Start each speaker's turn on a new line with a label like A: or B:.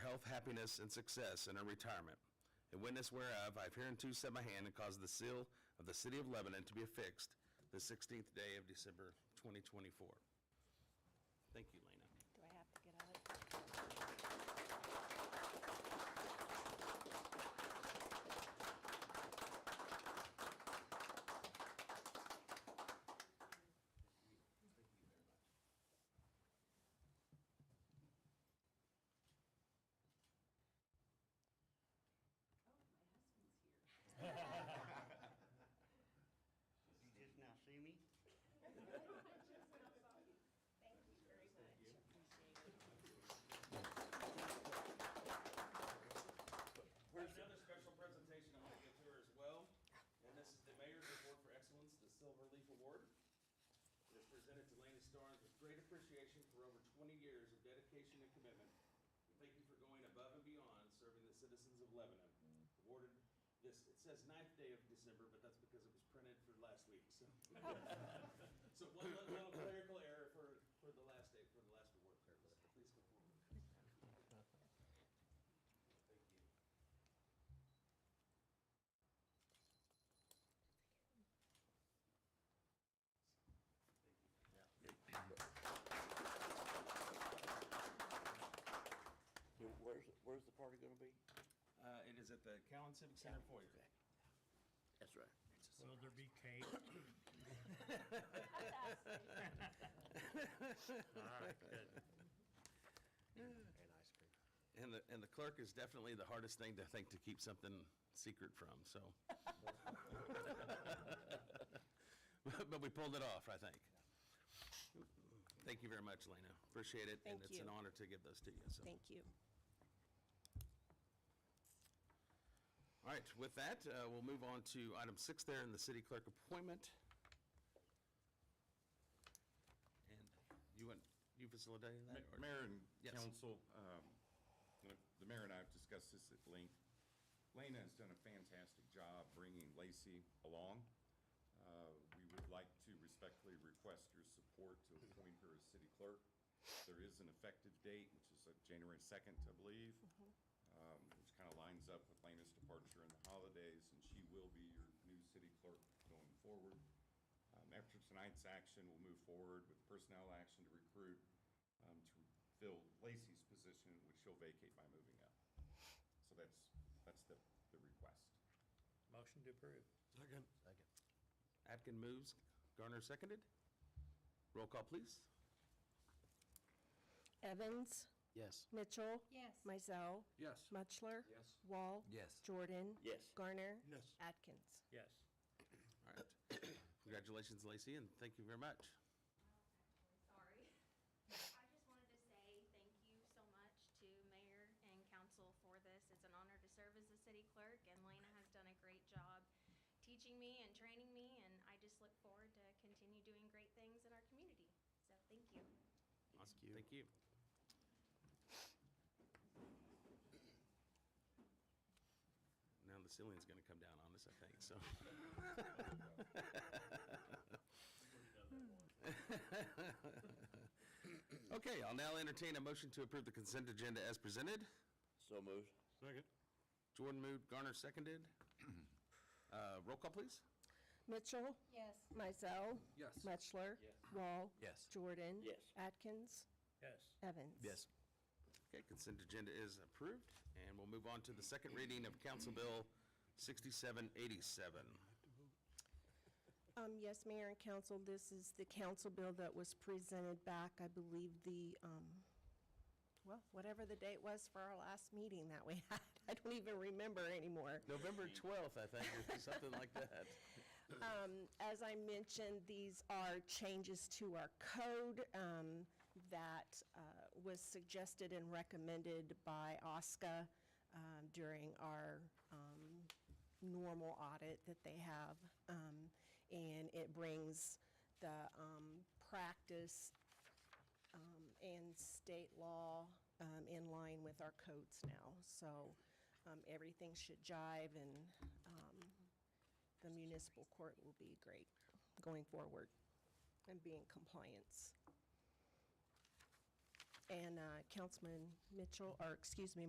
A: health, happiness, and success in her retirement. In witness whereof, I have hereunto set my hand and caused the seal of the city of Lebanon to be affixed the 16th day of December 2024. Thank you, Lena.
B: Do I have to get out of it?
C: Oh, my husband's here.
D: You just now see me?
C: Thank you very much. Appreciate it.
A: There's another special presentation I'm going to give to her as well, and this is the Mayor's Award for Excellence, the Silver Leaf Award. It is presented to Lena Starnes with great appreciation for over 20 years of dedication and commitment. We Thank you for going above and beyond serving the citizens of Lebanon. Awarded this, it says ninth day of December, but that's because it was printed for last week, so. So one little- little clerical error for, for the last day, for the last award. Please go forward. Thank you.
D: Dude, Where's, where's the party gonna be?
A: Uh, it is at the Cowan Civic Center foyer.
D: That's right.
E: Will there be cake? All right, good. And ice cream.
A: And the, and the clerk is definitely the hardest thing to think to keep something secret from, so. But we pulled it off, I think. Thank you very much, Lena. Appreciate it. And
B: Thank
A: it's an
B: you.
A: honor to give those to you, so.
B: Thank you.
A: All right, with that, uh, we'll move on to item six there in the city clerk appointment. And you want, you facilitating that? or-
F: Mayor and
A: Yes.
F: council, um, the- the mayor and I have discussed this at length. Lena has done a fantastic job bringing Lacey along. Uh, We would like to respectfully request your support to appoint her as city clerk. There is an effective date, which is uh, January 2nd, I believe, um, which kind of lines up with Lena's departure in the holidays, and she will be your new city clerk going forward. Um, After tonight's action, we'll move forward with personnel action to recruit um, to fill Lacey's position, which she'll vacate by moving up. So that's, that's the, the request.
E: Motion to approve.
G: Second.
A: Atkin moves, Garner seconded. Roll call, please.
B: Evans,
G: Yes.
B: Mitchell.
C: Yes.
B: Mizell.
G: Yes.
B: Muchler. Yes. Wall.
G: Yes.
B: Jordan.
D: Yes.
B: Garner.
G: Yes.
B: Atkins.
E: Yes.
A: All right. Congratulations, Lacey, and thank you very much.
H: Sorry. I just wanted to say thank you so much to mayor and council for this. It's an honor to serve as the city clerk, and Lena has done a great job teaching me and training me, and I just look forward to continue doing great things in our community. So, thank you.
A: Awesome. Thank you. Now the ceiling's going to come down on us, I think, so. Okay, I'll now entertain a motion to approve the consent agenda as presented.
D: So moved.
G: Second.
A: Jordan moved, Garner seconded. Uh, Roll call, please.
B: Mitchell.
C: Yes.
B: Mizell.
G: Yes.
B: Muchler. Wall.
G: Yes.
B: Jordan.
D: Yes.
B: Atkins.
E: Yes.
B: Evans.
A: Okay, consent agenda is approved, and we'll move on to the second reading of Council Bill 6787.
B: Um, yes, Mayor and Council, this is the council bill that was presented back, I believe, the, um, well, whatever the date was for our last meeting that we had. I don't even remember anymore.
A: November 12th, I think, or something like that.
B: Um, as I mentioned, these are changes to our code um, that uh, was suggested and recommended by OSCA um, during our um, normal audit that they have. Um, And it brings the um, practice um, and state law um, in line with our codes now. So um, everything should jive, and um, the municipal court will be great going forward and be in compliance. And uh, Councilman Mitchell, or excuse me,